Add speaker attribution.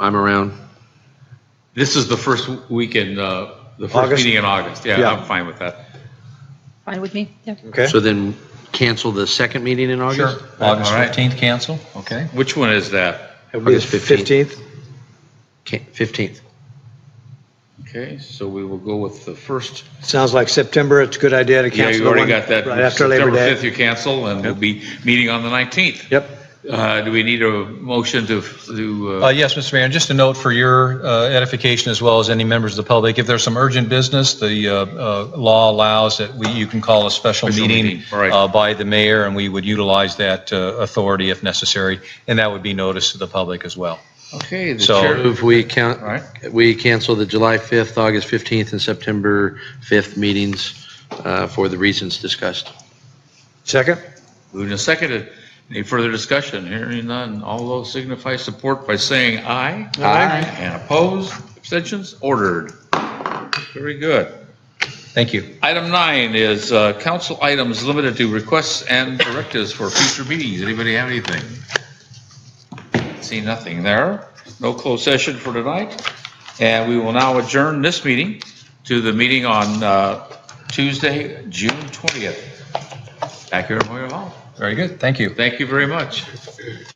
Speaker 1: I'm around. This is the first weekend, uh, the first
Speaker 2: August?
Speaker 1: meeting in August. Yeah,
Speaker 2: Yeah.
Speaker 1: I'm fine with that.
Speaker 3: Fine with me? Yeah.
Speaker 2: Okay,
Speaker 4: So then cancel the second meeting in August?
Speaker 5: August
Speaker 1: All right.
Speaker 5: 15th cancel, okay.
Speaker 1: Which one is that?
Speaker 2: it'll be the
Speaker 4: August 15th.
Speaker 2: 15th.
Speaker 4: Ca- 15th.
Speaker 1: Okay, so we will go with the first.
Speaker 2: Sounds like September, it's a good idea to
Speaker 1: Yeah,
Speaker 2: cancel
Speaker 1: you
Speaker 2: the
Speaker 1: already
Speaker 2: one
Speaker 1: got that.
Speaker 2: right after Labor
Speaker 1: September
Speaker 2: Day.
Speaker 1: 5th you cancel and we'll be meeting on the 19th.
Speaker 2: Yep,
Speaker 1: Uh, Do we need a motion to, to,
Speaker 5: Uh,
Speaker 1: uh,
Speaker 5: Yes, Mr. Mayor, and just a note for your uh, edification as well as any members of the public, if there's some urgent business, the uh, uh, law allows that we, you can call a special
Speaker 1: Special
Speaker 5: meeting
Speaker 1: meeting, right.
Speaker 5: uh, by the mayor, and we would utilize that uh, authority if necessary, and that would be noticed to the public as well.
Speaker 1: okay, the
Speaker 5: so-
Speaker 1: chair.
Speaker 4: Move we count,
Speaker 1: All right.
Speaker 4: we cancel the July 5th, August 15th, and September 5th meetings uh, for the reasons discussed.
Speaker 2: second?
Speaker 1: Moved and seconded. Any further discussion? Hearing none. All those signify support by saying aye.
Speaker 4: Aye.
Speaker 1: And opposed, abstentions, ordered. Very good.
Speaker 5: Thank you.
Speaker 1: Item nine is uh, council items limited to requests and directives for future meetings. Anybody have anything? See nothing there. No closed session for tonight. And we will now adjourn this meeting to the meeting on uh, Tuesday, June 20th. Back here at Moyer Hall.
Speaker 5: Very good, thank you.
Speaker 1: Thank you very much.